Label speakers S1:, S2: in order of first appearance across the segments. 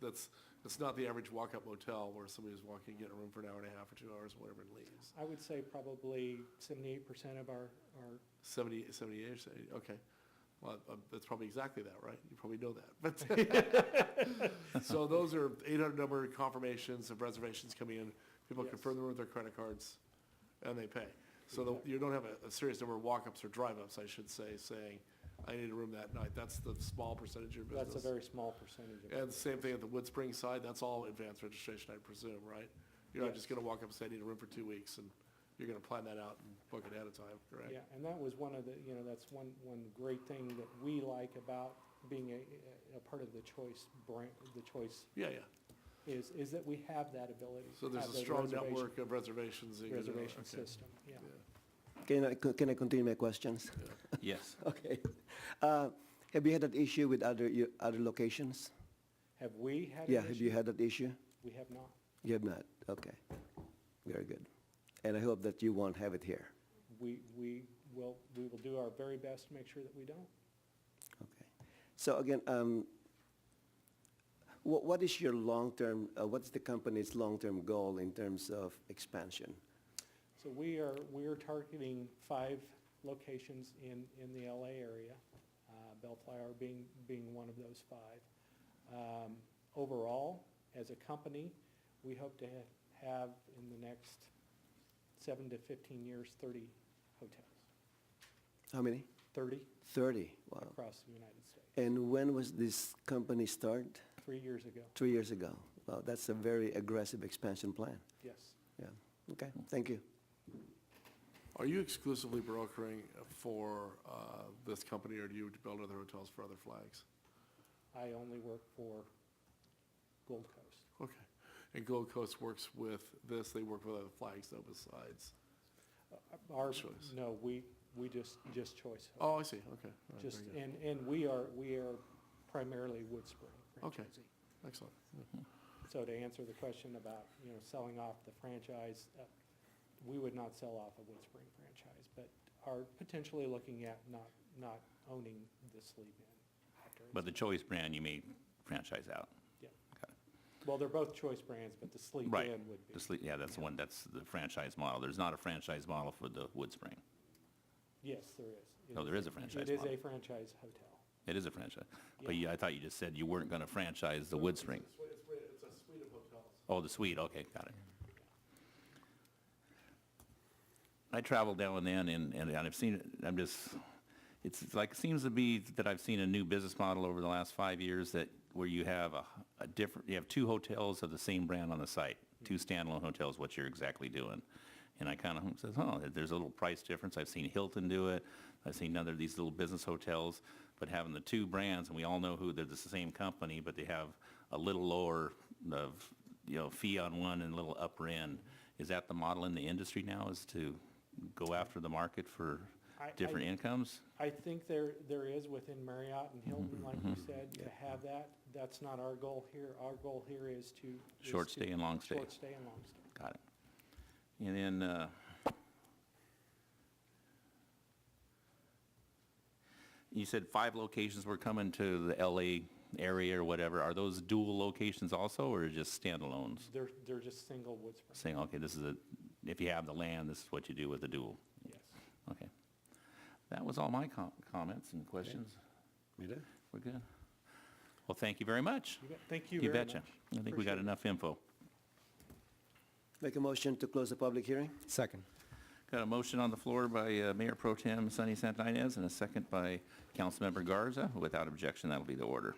S1: that's, it's not the average walk-up motel where somebody's walking, get a room for an hour and a half or two hours, whatever, and leaves.
S2: I would say probably seventy-eight percent of our, our,
S1: Seventy, seventy-eight, or 70 okay. Well, uh, that's probably exactly that, right? You probably know that, but. So those are eight hundred number confirmations of reservations coming in. People
S2: Yes.
S1: confirm the room with their credit cards and they pay. So the- you don't have a, a serious number of walk-ups or drive-ups, I should say, saying, I need a room that night. That's the small percentage of your business.
S2: that's a very small percentage of. our-
S1: And the same thing at the Woodspring side, that's all advanced registration, I presume, right? You're not just
S2: Yes.
S1: gonna walk up and say, I need a room for two weeks, and you're gonna plan that out and book it ahead of time, correct?
S2: Yeah, and that was one of the, you know, that's one, one great thing that we like about being a, a part of the Choice brand, the Choice
S1: Yeah, yeah.
S2: is, is that we have that ability.
S1: So there's
S2: have
S1: a
S2: the
S1: strong
S2: reservation-
S1: network of reservations. that you can do.
S2: Reservation
S1: Okay.
S2: system, yeah.
S1: Yeah.
S3: Can I, co- can I continue my questions?
S4: Yes.
S3: Okay. Uh, Have you had that issue with other, you- other locations?
S2: Have we had an
S3: Yeah, have you
S2: issue?
S3: had that issue?
S2: We have not.
S3: You have not? Okay. Very good. And I hope that you won't have it here.
S2: We, we will, we will do our very best to make sure that we don't.
S3: Okay. So again, um, what, what is your long-term, uh, what's the company's long-term goal in terms of expansion?
S2: So we are, we are targeting five locations in, in the LA area, uh, Bellflower being, being one of those five. Um, Overall, as a company, we hope to ha- have in the next seven to 15 years, 30 hotels,
S3: How many?
S2: 30
S3: Thirty. Wow.
S2: across the United States,
S3: And when was this company started?
S2: three years ago,
S3: Three years ago. Wow, that's a very aggressive expansion plan.
S2: yes.
S3: Yeah. Okay, thank you.
S1: Are you exclusively brokering for, uh, this company, or do you build other hotels for other flags?
S2: I only work for Gold Coast.
S1: Okay. And Gold Coast works with this, they work with other flags though besides?
S2: Uh, Our,
S1: Choice.
S2: no, we, we just, just Choice Hotels.
S1: Oh, I see, okay. All right, very
S2: Just,
S1: good.
S2: and, and we are, we are primarily Woodspring
S1: Okay.
S2: franchisee.
S1: Excellent.
S2: So to answer the question about, you know, selling off the franchise, uh, we would not sell off a Woodspring franchise, but are potentially looking at not, not owning the Sleep Inn after. it's-
S4: But the Choice brand, you may franchise out.
S2: Yeah.
S4: Okay.
S2: Well, they're both choice brands, but the Sleep
S4: Right.
S2: Inn would be.
S4: The sle- Yeah, that's the one, that's the franchise model. There's not a franchise model for the Woodspring.
S2: Yes, there is. It
S4: No, there is a franchise
S2: It is
S4: model.
S2: a franchise hotel.
S4: It is a franchise. But
S2: Yeah.
S4: yeah, I thought you just said you weren't going to franchise the Woodspring.
S1: It's a suite of hotels.
S4: Oh, the suite, okay, got it. I travel now and then, and, and I've seen, it. I'm just, it's it's like, seems to be that I've seen a new business model over the last five years that, where you have a, a different, you have two hotels of the same brand on the site, two standalone hotels, what you're exactly doing. And I kind of says, oh, there's a little price difference. I've seen Hilton do it. I've seen other, these little business hotels, but having the two brands, and we all know who, they're the same company, but they have a little lower of, you know, fee on one and a little upper end. Is that the model in the industry now, is to go after the market for
S2: I- I-
S4: different incomes?
S2: I think there, there is within Marriott and
S4: Mm-hmm,
S2: Hilton, like you said, to have that. That's not our goal here. Our goal here is to. is
S4: Short
S2: to-
S4: stay and long stay.
S2: Short stay and long stay.
S4: Got it. And then, uh, you said five locations were coming to the LA area or whatever. Are those dual locations also, or just standalones?
S2: They're, they're just single Woodspring,
S4: Saying, okay, this is a, if you have the land, this is what you do with the dual.
S2: yes.
S4: Okay. That was all my com- comments and questions. We're good. Well, thank you very much.
S2: You bet. Thank you
S4: You
S2: very much.
S4: betcha. I think we
S2: Appreciate
S4: got
S2: it.
S4: enough info.
S3: Make a motion to close the public hearing?
S5: Second.
S4: Got a motion on the floor by uh, Mayor Pro Tem Sunny Santinez and a second by Councilmember Garza. Without objection, that'll be the order.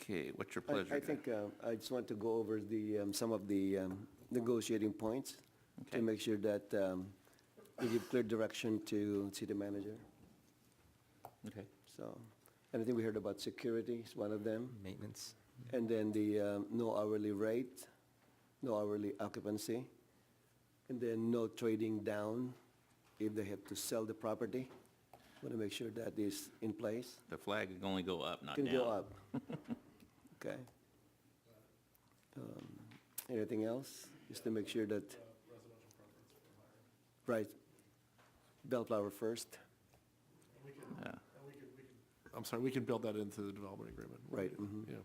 S4: Okay, what's your
S3: I-
S4: pleasure?
S3: I think uh, I just want to go over the, um, some of the um, negotiating points
S4: Okay.
S3: to make sure that um, we give clear direction to city manager.
S4: Okay.
S3: So, and I think we heard about security is one of them.
S5: Maintenance.
S3: And then the um, no hourly rate, no hourly occupancy, and then no trading down if they have to sell the property. Want to make sure that is in place.
S4: The flag can only go up, not
S3: Can
S4: down.
S3: go up. Okay. Um, Anything else? Just to make sure that. Right. Bellflower first,
S4: Yeah.
S1: I'm sorry, we can build that into the development agreement.
S3: right, mhm.
S1: Yeah.